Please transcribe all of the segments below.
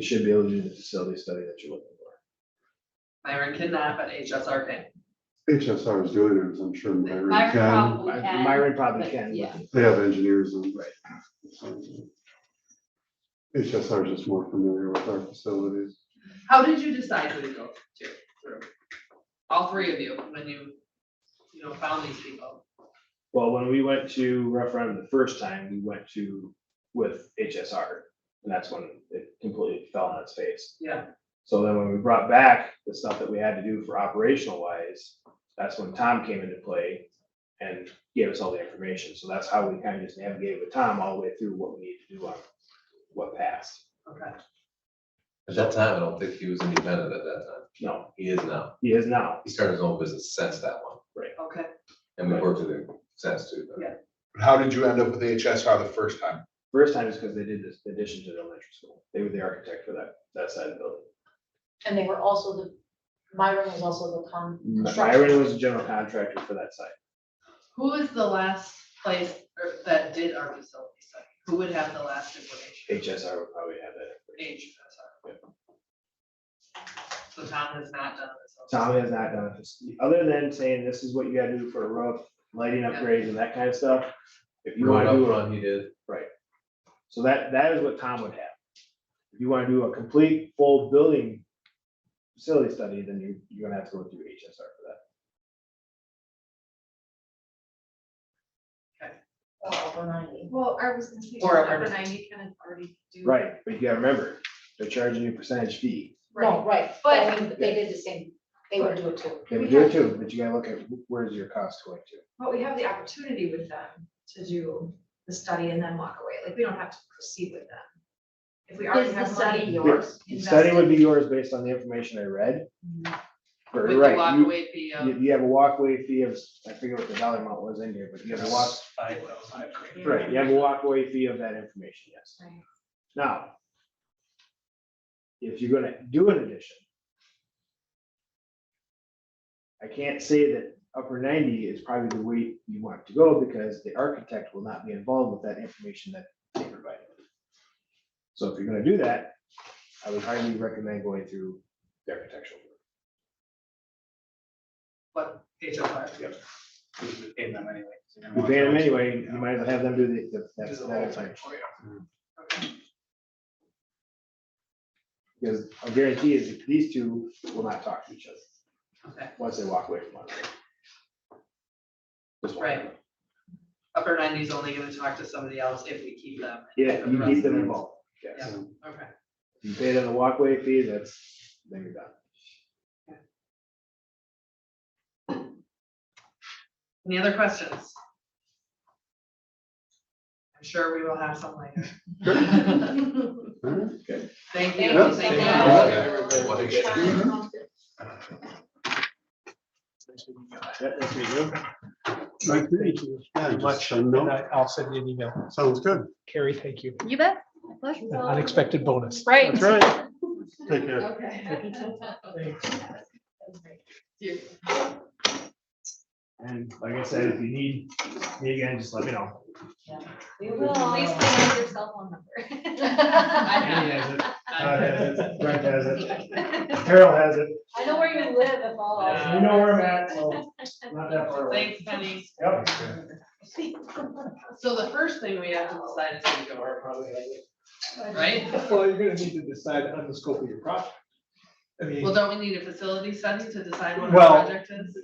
You should be able to do the facility study that you're looking for. Myron Kidnap at HSRK. HSR is doing it, so I'm sure Myron Myron can, probably can. Myron probably but can. but- yeah. they have engineers and. Right. HSR is just more familiar with our facilities. How did you decide who to go to? through? All three of you, when you, you know, found these people. Well, when we went to referendum the first time, we went to with HSR. And that's when it completely fell on its face. Yeah. So then when we brought back the stuff that we had to do for operational wise, that's when Tom came into play and gave us all the information. So that's how we kind of just navigated with Tom all the way through what we need to do on what passed. Okay. At that time, I don't think he was independent at that time. No, He is now. he is now. He started his own business since that one, Okay. and we worked with him since too. but- Yeah. How did you end up with HSR the first time? First time is because they did this addition to the elementary school. They were the architect for that, that side of the building. And they were also the, Myron was also the con. Myron was a general contractor for that site. Who is the last place or- that did our facility study? Who would have the last information? HSR would probably have that. HSR. So Tom has not done this. Tom has not done this, other than saying this is what you gotta do for a roof, lighting upgrades and that kind of stuff. If you Road wanna up do, a- front, he did. so that, that is what Tom would have. If you wanna do a complete full building facility study, then you, you're gonna have to go through HSR for that. uh, Over ninety. Well, I was confused, Or a over hundred. ninety can already do. Right, but you gotta remember, they're charging you a percentage fee. No, Right, right, But- but I mean, they did the same, they would do it too. They would do it too, but you gotta look at where's your cost going to. but we have the opportunity with them to do the study and then walk away, like, we don't have to proceed with them. If we already Is the have study money. yours? The Study would be yours based on the information I read. Or, With the right, you- walkaway fee of. You, you have a walkway fee of, I forget what the dollar amount was in here, but you have a walk, Yeah. right, you have a walkway fee of that information, yes. Right. Now. If you're gonna do an addition. I can't say that upper ninety is probably the way you want to go because the architect will not be involved with that information that they provided. So if you're gonna do that, I would highly recommend going through the architectural. What HSR? pay them anyway. You pay them anyway, you might as well have them do the, the, that's, that's like. Okay. Because a guarantee is that these two will not talk to each other Okay. once they walk away from one another. Just one. Right. Upper ninety's only gonna talk to somebody else if we keep them. Yeah, you keep them involved. Yes. Yeah. Okay. You pay them the walkway fee, that's, then you're done. Any other questions? I'm sure we will have some later. Thank you. Thank you. Thank you. Yeah. What did you get? Yep, that's what you do. Thank you. Yeah, just a note. I- I'll send you an email. Sounds good. Carrie, thank you. You bet. An Unexpected bonus. Right. That's right. Take care. And like I said, if you need me again, just let me know. We At least they have your cell phone I Andy has it, Todd Bye. has it, Brent has it, number. Carol has it, know where you live if all else. you know where I'm at, so not that far away. Thanks, Penny. Yep. So the first thing we have to decide is who to go over, right? Well, you're gonna need to decide on the scope of your project. I Well, mean. don't we need a facility study to decide what our Well, project is?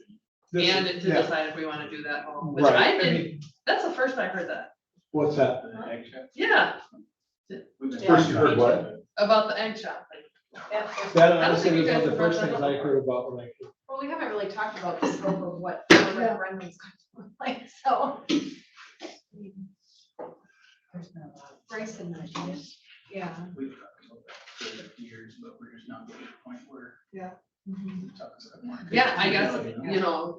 this- And to yeah, decide if we wanna do that home, which Right, I I didn't, mean, that's the first I heard that. what's that? Yeah, First you heard what? about the egg shop. thing. That I don't think honestly you was one of guys the brought first that things up. I heard about when I. Well, we haven't really talked about the scope of what the referendum's going to look like, so. Bryce had mentioned it, yeah. We've talked about that for years, but we're just not getting to the point where. Yeah. we talk to them. Yeah, I guess, you know.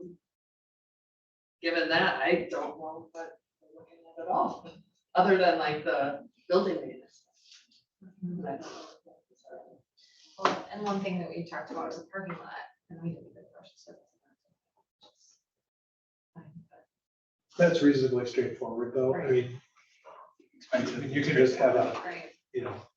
Given that, I don't know what we're looking at at all, other than like the building maintenance. I don't know what that is. Well, And one thing that we talked about was the parking lot, and we didn't even brush it. That's reasonably straightforward though. I mean, I mean, you can just have a, Right, you know,